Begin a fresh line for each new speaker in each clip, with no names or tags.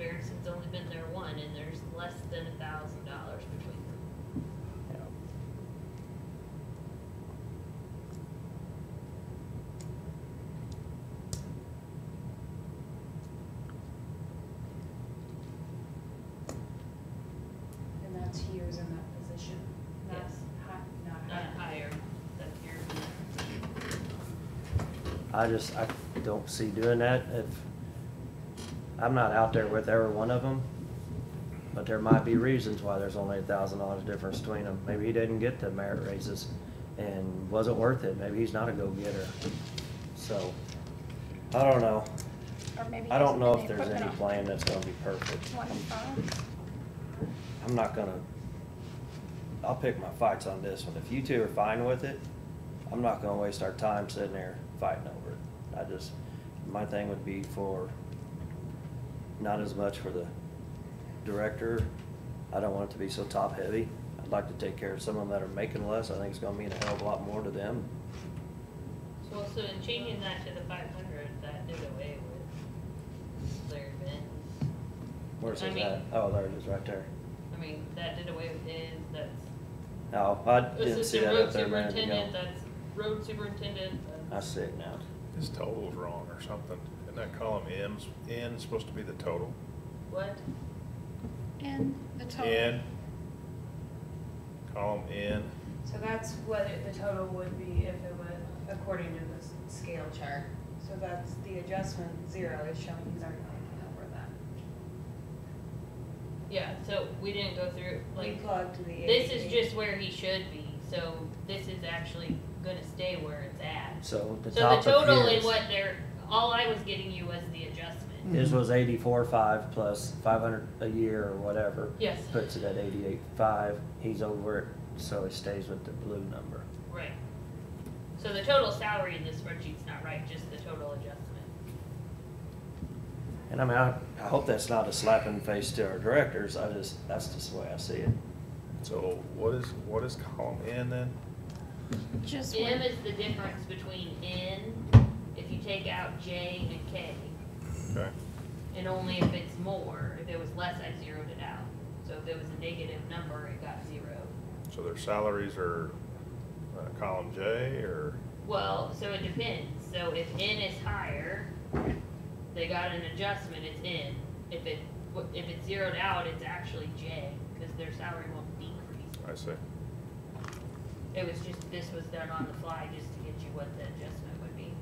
it's only been there one, and there's less than a thousand dollars between them.
Yeah.
And that's years in that position, not
Yes.
high, not
Not higher,
higher.
that's your,
I just, I don't see doing that if, I'm not out there with every one of them, but there might be reasons why there's only a thousand dollars difference between them. Maybe he didn't get the merit raises and wasn't worth it. Maybe he's not a go-getter. So, I don't know.
Or maybe
I don't
using
know
the
if there's
equipment
any
on
plan that's gonna be perfect.
One phone.
I'm not gonna, I'll pick my fights on this one. If you two are fine with it, I'm not gonna waste our time sitting there fighting over it. I just, my thing would be for, not as much for the director. I don't want it to be so top-heavy. I'd like to take care of some of them that are making less. I think it's gonna mean a hell of a lot more to them.
well, so in changing that to the five hundred, that did away with Larry Benz.
Where's
I
his
mean-
at? Oh, there it is, right there.
I mean, that did away with his, that's.
No, Oh, I didn't see
Assistant
that
road
up there a minute
superintendent,
ago.
that's road superintendent,
I
that's.
see it now.
His total's wrong or something. Isn't that column M's, N's supposed to be the total?
What?
And the total.
N. Column N.
So that's what it- the total would be if it went according to this scale chart. So that's the adjustment, zero is showing he's already making over that.
Yeah, so we didn't go through,
We
like,
plugged the.
this is
AHP.
just where he should be, so this is actually gonna stay where it's at.
So the
So the
top
total
of
in
his
what they're, all I was getting you was the adjustment.
His was eighty-four five plus five hundred a year or whatever.
Yes,
Puts it at eighty-eight five. He's over it, so he stays with the blue number.
right. So the total salary in this spreadsheet's not right, just the total adjustment.
And I mean, I, I hope that's not a slap in the face to our directors. I just, that's just the way I see it.
So what is, what is column N then?
Just
M
one.
is the difference between N, if you take out J and K,
Okay.
and only if it's more, if it was less, I zeroed it out. So if it was a negative number, it got zeroed.
So their salaries are, uh, column J or,
Well, so it depends. So if N is higher, they got an adjustment, it's N. If it, if it's zeroed out, it's actually J, because their salary won't decrease.
I see.
It was just, this was done on the fly just to get you what the adjustment would be.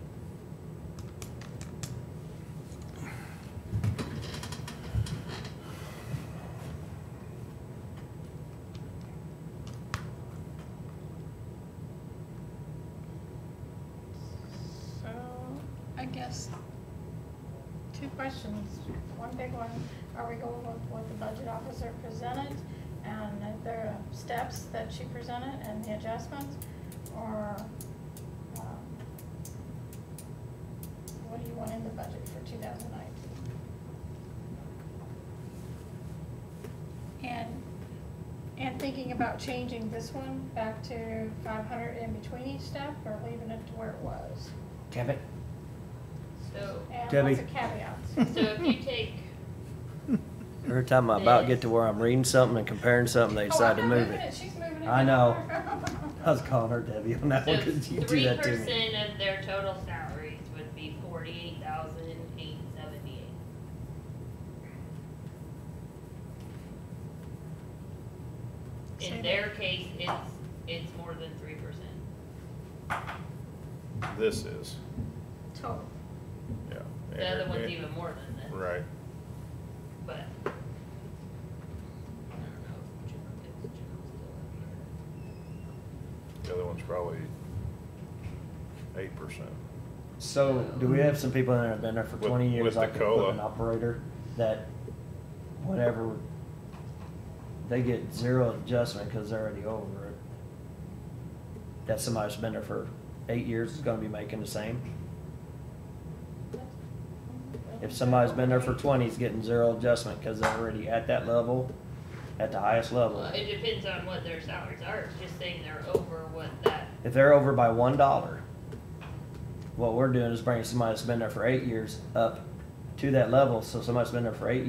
So, I guess, two questions. One big one, are we going with what the budget officer presented? And are there steps that she presented and the adjustments? Or, um, what do you want in the budget for two thousand nineteen? And, and thinking about changing this one back to five hundred in between each step or leaving it to where it was?
Kevin?
So,
And
Debbie.
lots of caveats.
so if you take,
Every time I about get to where I'm reading something and comparing
Oh,
something,
Oh,
they decide to move it.
She's moving it.
I know. I was calling her Debbie on that
so
one because you do
three
that to me.
percent of their total salaries would be forty-eight thousand eight seventy-eight. In their case, it's, it's more than three percent.
This is,
Total.
yeah.
The other one's even more than that,
Right.
but. I don't know if general, if general's still up here.
The other one's probably eight percent.
So do we have some people that have been there for
With-
twenty years,
with the
like the
cola.
equipment operator, that whatever, they get zero adjustment because they're already over it? That somebody that's been there for eight years is gonna be making the same? If somebody's been there for twenty, is getting zero adjustment because they're already at that level, at the highest
Well,
level.
it depends on what their salaries are, it's just saying they're over what that,
If they're over by one dollar, what we're doing is bringing somebody that's been there for eight years up to that level, so somebody's been there for eight